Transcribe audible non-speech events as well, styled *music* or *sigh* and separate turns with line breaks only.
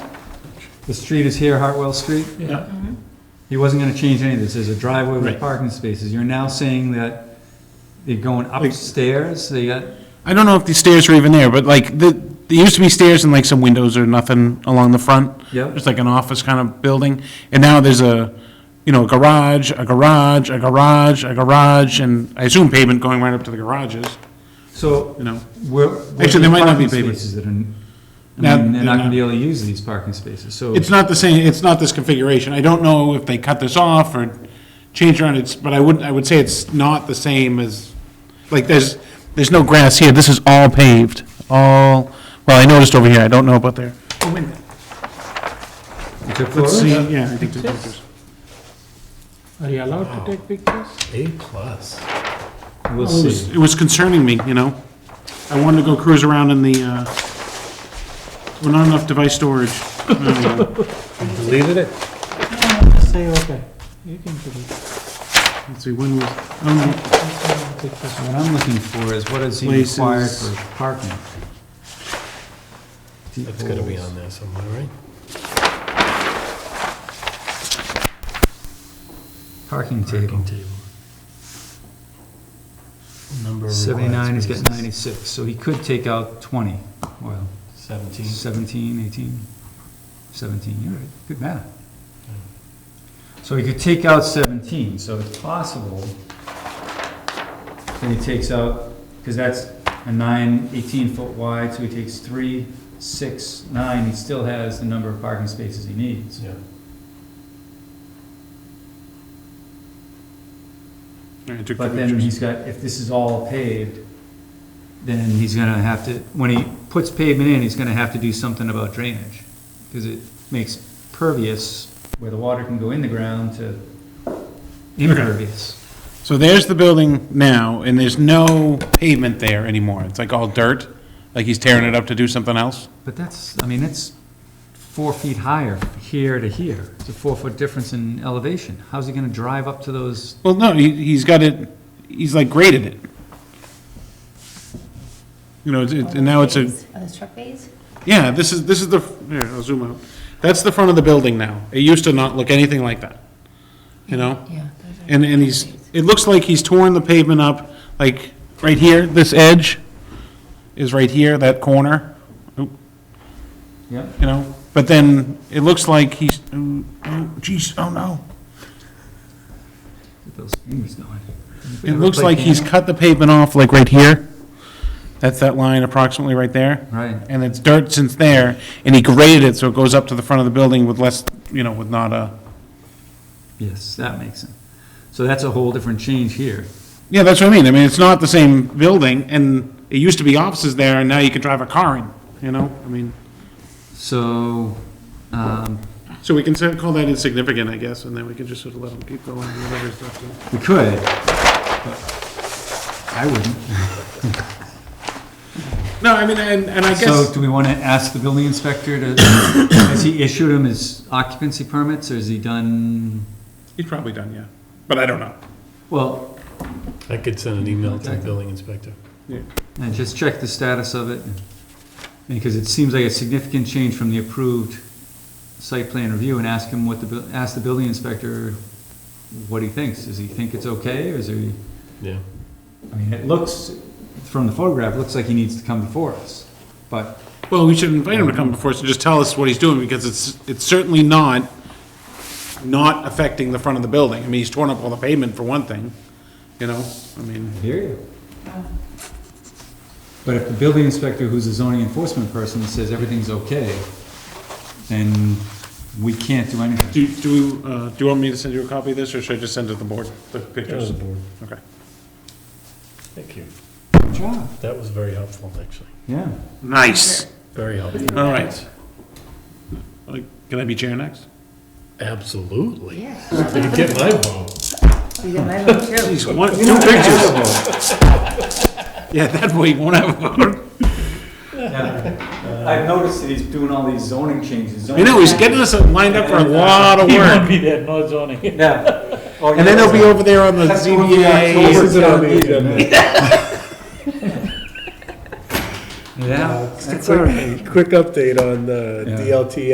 the street is here, Hartwell Street.
Yeah,
He wasn't gonna change any of this, there's a driveway with
Right.
parking spaces, you're now saying that they're going upstairs, they got,
I don't know if these stairs are even there, but like, the, there used to be stairs and like some windows or nothing along the front.
Yep.
It's like an office kind of building, and now there's a, you know, a garage, a garage, a garage, a garage, and I assume pavement going right up to the garages,
so,
you know?
where? where
Actually,
are
there might not
parking
be pavement.
Spaces that are, I mean,
Now-
they're not
they're
gonna be
not.
able to use these parking spaces, so.
It's not the same, it's not this configuration, I don't know if they cut this off or changed around, it's, but I would, I would say it's not the same as, like, there's, there's no grass here, this is all paved, all, well, I noticed over here, I don't know about there.
You took
Let's
photos?
see, yeah, I think there's pictures.
Are you allowed to take pictures?
A plus.
We'll
It
see.
was- It was concerning me, you know? I wanted to go cruise around in the, uh, well, not enough device storage.
*laughs*
Uh,
Deleted it?
Say, okay, you can do it.
Let's see, when was, oh, no.
What I'm looking for is what is he required
Places.
for parking?
That's gotta be on there somewhere, right?
Parking table.
Parking table. Number. of required
79, he's got
spaces.
96, so he could take out 20, well,
Seventeen.
17, 18, 17, you're right, good math. So he could take out 17, so it's possible that he takes out, because that's a 9, 18-foot wide, so he takes 3, 6, 9, he still has the number of parking spaces he needs.
Yeah.
I took the
But then
pictures.
he's got, if this is all paved, then he's gonna have to, when he puts pavement in, he's gonna have to do something about drainage. Cause it makes pervious, where the water can go in the ground to impervious.
So there's the building now, and there's no pavement there anymore, it's like all dirt, like he's tearing it up to do something else?
But that's, I mean, it's four feet higher here to here. It's a four-foot difference in elevation. How's he gonna drive up to those?
Well, no, he, he's got it, he's like graded it. You know, it's- it- and now it's a,
Are those truck bays?
yeah, this is, this is the, here, I'll zoom out. That's the front of the building now. It used to not look anything like that, you know?
Yeah.
And, and he's, it looks like he's torn the pavement up, like, right here, this edge is right here, that corner,
Yep.
you know? But then, it looks like he's, oh, oh, geez, oh no.
Get those fingers going.
It looks like he's cut the pavement off, like right here. That's that line approximately right there.
Right.
And it's dirt since there, and he graded it so it goes up to the front of the building with less, you know, with not a,
Yes, that makes sense. So that's a whole different change here.
yeah, that's what I mean. I mean, it's not the same building, and it used to be offices there, and now you can drive a car in, you know? I mean,
So, um,
so we can sort of call that insignificant, I guess, and then we can just sort of let him keep going, whatever he's up to.
we could, but I wouldn't.
No, I mean, and, and I
So
guess,
do we want to ask the building inspector to, has he issued him his occupancy permits, or has he done,
he's probably done, yeah, but I don't know.
well,
I could send an email to the building inspector.
and just check the status of it, because it seems like a significant change from the approved site plan review, and ask him what the, bu- ask the building inspector what he thinks. Does he think it's okay, or is he?
Yeah.
I mean, it looks, from the photograph, it looks like he needs to come before us, but
Well, we should invite him to come before us and just tell us what he's doing, because it's, it's certainly not, not affecting the front of the building. I mean, he's torn up all the pavement for one thing, you know, I mean,
Hear you. But if the building inspector, who's a zoning enforcement person, says everything's okay, then we can't do anything.
do, do, we, uh, do you want me to send you a copy of this, or should I just send it to the board, the
There's
pictures?
the board.
Okay.
Thank you.
Good job.
That was very helpful, actually.
Yeah.
Nice,
Very helpful.
all right. Like, Can I be chair next?
Absolutely.
Yeah.
You get my vote.
You got my vote too.
Please, one, two pictures. Yeah, that way you won't have a vote.
Yeah. *laughs* I've noticed that he's doing all these zoning changes.
I know, he's getting us lined up for a lot of work.
Be *laughs* there, no zoning.
Yeah.
And then they'll be over there on
*laughs*
the
That's going to be
ZBA.
October's town meeting. Yeah. *laughs*
*laughs*
Quick update on the
Yeah.
DLTA